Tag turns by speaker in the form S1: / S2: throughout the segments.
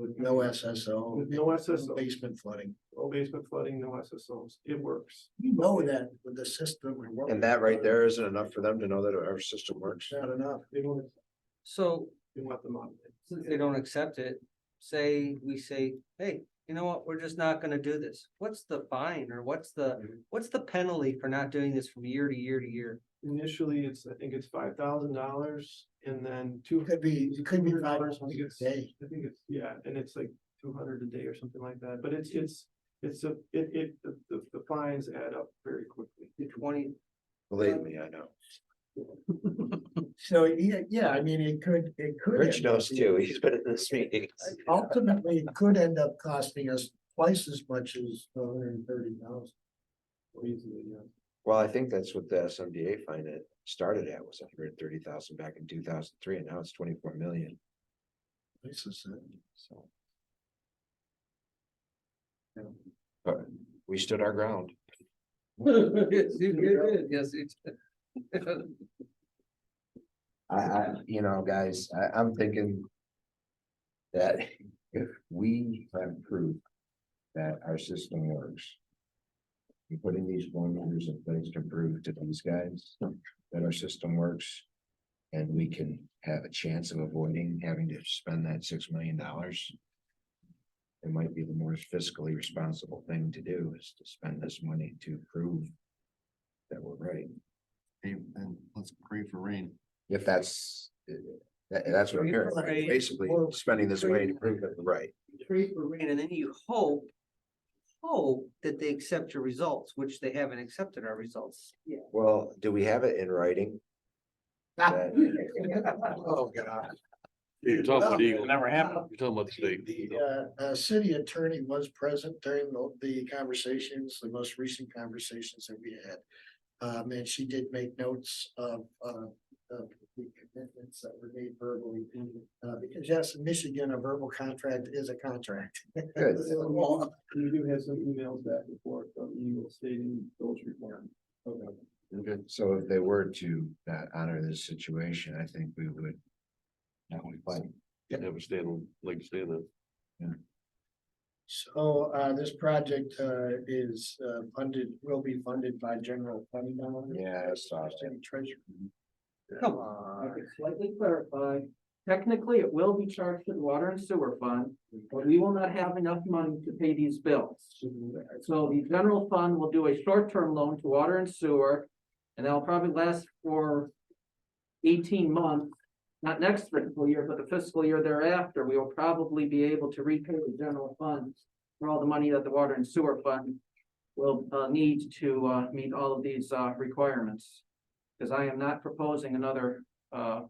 S1: No SSO,
S2: With no SSO,
S1: basement flooding.
S2: no basement flooding, no SSOs, it works.
S1: You know that with the system. we're working
S3: And that right
S1: on,
S3: there isn't enough for them to know that our system works.
S1: It's not enough.
S2: They don't,
S4: So
S2: they want them on.
S4: since they don't accept it, say, we say, hey, you know what, we're just not gonna do this. What's the fine or what's the, what's the penalty for not doing this from year to year to year?
S2: Initially, it's, I think it's five thousand dollars and then two.
S1: It could be, it could be
S2: $200
S1: five
S2: I think
S1: dollars
S2: it's-
S1: a day.
S2: I think it's, yeah, and it's like two hundred a day or something like that, but it's, it's, it's a, it, it, the, the, the fines add up very quickly.
S4: Twenty,
S3: Believe me, I know.
S1: So, yeah, yeah, I mean, it could, it could.
S3: Rich
S1: end up
S3: knows
S1: being-
S3: too. He's been in this meeting.
S1: Ultimately, it could end up costing us twice as much as the hundred and thirty thousand.
S2: Easily, yeah.
S3: Well, I think that's what the SMDA fine it started at was hundred and thirty thousand back in two thousand three and now it's twenty-four million. So. But we stood our ground.
S4: yes, you did, yes, it's.
S3: I, I, you know, guys, I, I'm thinking. That if we have proof that our system works. and Putting these formulas in place to prove to these guys that our system works. And we can have a chance of avoiding having to spend that six million dollars. It might be the more fiscally responsible thing to do is to spend this money to prove. That we're right.
S5: And let's pray for rain.
S3: If that's, uh, that, that's what I'm hearing,
S4: Right.
S3: basically spending this way to prove it right.
S4: Pray for rain, and then you hope, hope that they accept your results, which they haven't accepted our results. Yeah.
S3: Well, do we have it in writing? That-
S1: Ah. Oh, God.
S6: You're talking about Eagle, you're
S1: Never happened.
S6: talking about the state.
S1: The uh, uh, city attorney was present during the, the conversations, the most recent conversations that we had. Um, and she did make notes of, uh, of the commitments that were made verbally. Uh, because yes, in Michigan, a verbal contract is a contract.
S3: Good.
S1: It's a law.
S2: We do have some emails back and forth from Eagle stating those requirements.
S3: So if they were to not honor this situation, I think we would. That would fight.
S6: Have a stand, like stand up.
S1: So, uh, this project, uh, is, uh, funded, will be funded by general fund dollars.
S3: Yeah, I saw that.
S1: City treasurer.
S4: Come
S7: I
S4: on.
S7: could slightly clarify, technically, it will be charged to the water and sewer fund, but we will not have enough money to pay these bills. So the general fund will do a short-term loan to water and sewer, and that'll probably last for eighteen months. Not next fiscal year, but the fiscal year thereafter, we will probably be able to repay the general fund for all the money that the water and sewer fund will, uh, need to, uh, meet all of these, uh, requirements. Because I am not proposing another uh,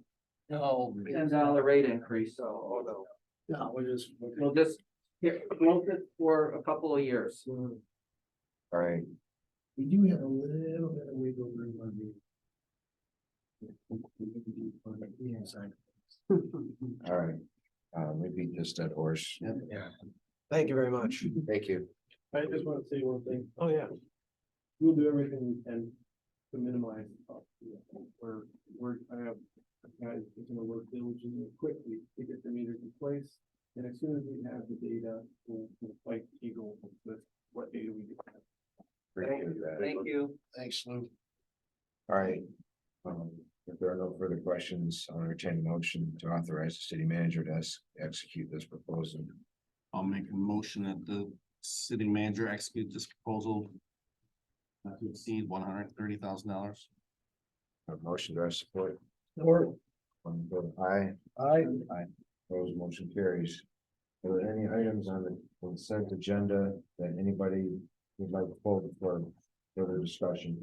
S7: ten dollar rate increase, so
S1: No, we're just. we're just-
S7: we'll just here, hold it for a couple of years.
S1: uh,
S3: All right,
S1: We do have a little bit of wiggle room on the. inside.
S3: all right. Uh, we beat this dead horse. Yeah. Thank you very much. Thank you.
S2: I just want to say one thing. Oh, yeah. We'll do everything we can to minimize. the cost. We're, we're, I have, guys, are gonna work diligently and quickly to get the meters in place. And as soon as we have the data, we'll, we'll fight Eagle with what data we do have.
S3: Appreciate that.
S4: Thank you.
S1: Thanks, Lou.
S3: All right. Um, if there are no further questions, I'll entertain a motion to authorize the city manager to ex- execute this proposal.
S5: I'll make a motion that the city manager execute this proposal. Not to exceed one hundred and thirty thousand dollars.
S3: A motion to our support.
S1: Or,
S3: One vote aye. Aye. Aye. Those motion carries. Are there any items on the consent agenda that anybody would like to pull for further discussion?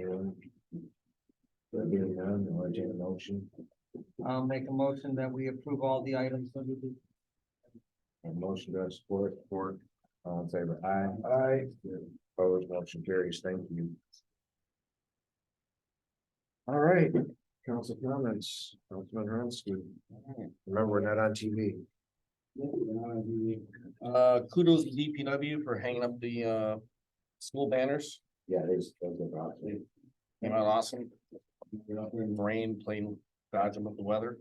S3: Anyone? There being none, I'll entertain a motion.
S4: I'll make a motion that we approve all the items under the
S3: A motion to our support for, all in favor, aye. Aye. Opposed, motion carries. Thank you. All right, council comments, Councilman Ransky. Remember, we're not on TV.
S5: Uh, kudos to DPW for hanging up the, uh, school banners.
S3: Yeah, there's, there's a problem.
S5: Came out awesome. We're not in the rain, playing dodging with the weather.